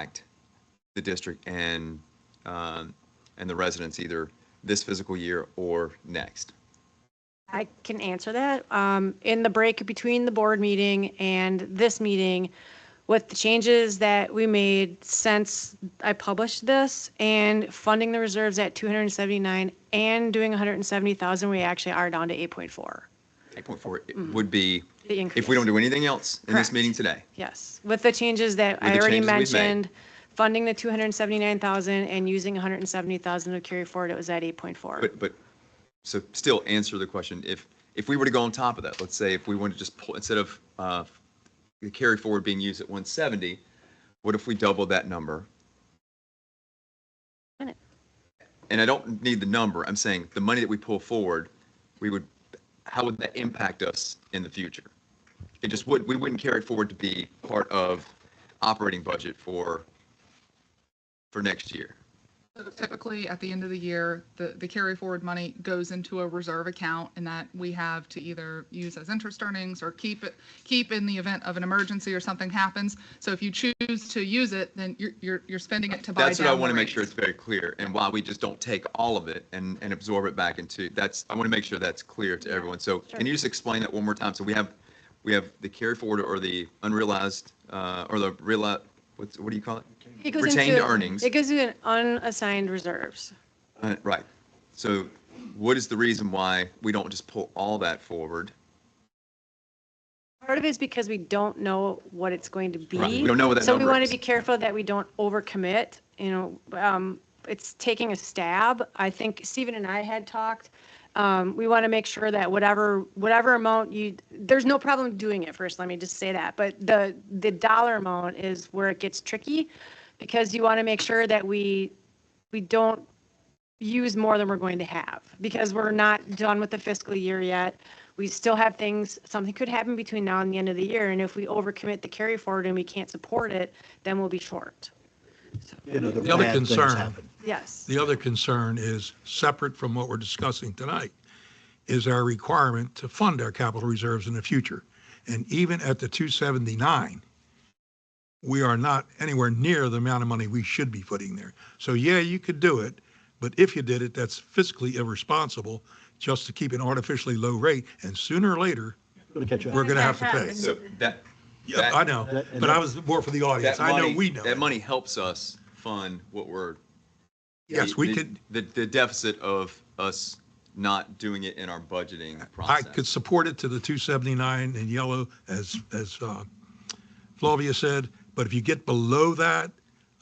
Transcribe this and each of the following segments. impact the district and, um, and the residents either this fiscal year or next? I can answer that. Um, in the break between the board meeting and this meeting, with the changes that we made since I published this and funding the reserves at 279 and doing 170,000, we actually are down to 8.4. Eight point four Mm-hmm. would be, The increase. if we don't do anything else in this Correct. meeting today. Yes, with the changes that With I the already changes we've made. mentioned, funding the 279,000 and using 170,000 to carry forward, it was at 8.4. But, but, so still answer the question, if, if we were to go on top of that, let's say if we wanted to just pull, instead of, uh, the carry forward being used at one seventy, what if we double that number? Minute. And I don't need the number, I'm saying the money that we pull forward, we would, how would that impact us in the future? It just would, we wouldn't carry it forward to be part of operating budget for, for next year. Typically, at the end of the year, the, the carry forward money goes into a reserve account and that we have to either use as interest earnings or keep it, keep in the event of an emergency or something happens. So if you choose to use it, then you're, you're, you're spending it to buy down. That's what I want to the make sure it's rates. very clear, and why we just don't take all of it and, and absorb it back into, that's, I want to make sure that's clear to everyone. So can you just explain that one more time? So we have, we have the carry forward or the unrealized, uh, or the realized, what's, what do you call it? It goes Retained into- earnings. It goes into unassigned reserves. Uh, Right. So what is the reason why we don't just pull all that forward? Part of it is because we don't know what it's going to be. Right, we don't know what that So we number want is. to be careful that we don't overcommit, you know, um, it's taking a stab. I think Stephen and I had talked. Um, we want to make sure that whatever, whatever amount you, there's no problem doing it first, let me just say that. But the, the dollar amount is where it gets tricky because you want to make sure that we, we don't use more than we're going to have because we're not done with the fiscal year yet. We still have things, something could happen between now and the end of the year. And if we overcommit the carry forward and we can't support it, then we'll be short. you know, the The other bad things concern- happen. Yes. The other concern is, separate from what we're discussing tonight, is our requirement to fund our capital reserves in the future. And even at the 279, we are not anywhere near the amount of money we should be putting there. So yeah, you could do it, but if you did it, that's fiscally irresponsible just to keep an artificially low rate. And sooner or later, Gonna catch up. we're going to have to pay. So that, Yeah, I know, but I was more for the audience. that I know we money, know. that money helps us fund what we're. Yes, we the- could, The, the deficit of us not doing it in our budgeting I process. could support it to the 279 in yellow, as, as uh, Flavia said, but if you get below that,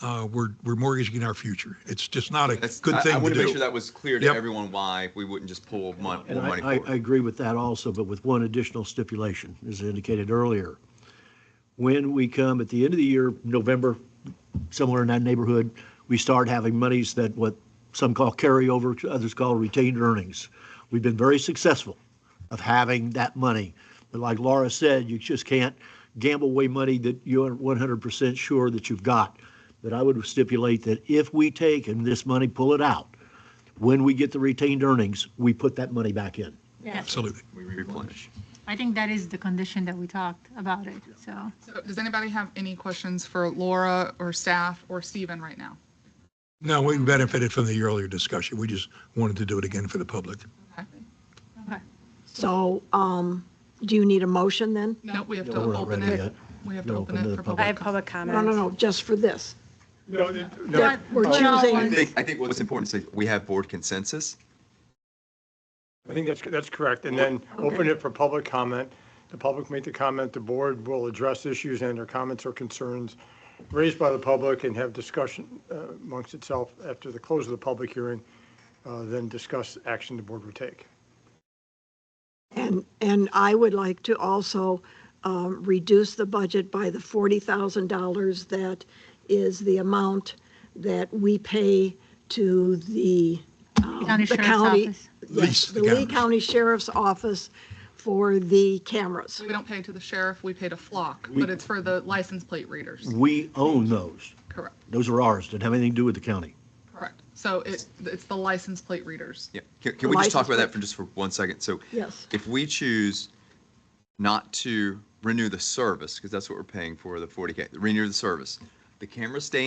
uh, we're, we're mortgaging our future. It's just not a That's, good I- I thing to want to make sure do. that was clear to Yep. everyone why we wouldn't just pull mon- And Oh, more money I, I, I forward. agree with that also, but with one additional stipulation, as indicated earlier. When we come at the end of the year, November, somewhere in that neighborhood, we start having monies that what some call carryover, others call retained earnings. We've been very successful of having that money. But like Laura said, you just can't gamble away money that you're 100% sure that you've got. But I would stipulate that if we take and this money, pull it out, when we get the retained earnings, we put that money back in. Absolutely. We replenish. I think that is the condition that we talked about it, so. So Does anybody have any questions for Laura or staff or Steven right now? No, we benefited from the earlier discussion. We just wanted to do it again for the public. okay. So, um, do you need a motion then? No, we have Yeah, to we're not open ready it. yet. We have to No, open open to it the for public. I public. have public No, comments. no, no, just for this. No, We're But not I one- choosing, think, I think what's important is that we have board consensus. I think that's, that's correct. And then open it for public comment. The public make the comment, the board will address issues and their comments or concerns raised by the public and have discussion uh, amongst itself after the close of the public hearing, uh, then discuss action the board would take. and, and I would like to also um, reduce the budget by the $40,000 that is the amount that we pay to the, County the Sheriff's county. Office. Lease Yes, the the Lee cameras. County Sheriff's Office for the cameras. We don't pay to the sheriff, we pay to Flock, but it's for the license plate readers. We own those. Correct, Those are ours, didn't have anything to do with the county. correct. So it, it's the license plate readers. Yeah. Can, can we just talk License about that plate. for just for one second? So Yes. if we choose not to renew the service, because that's what we're paying for, the 40K, renew the service, the cameras stay in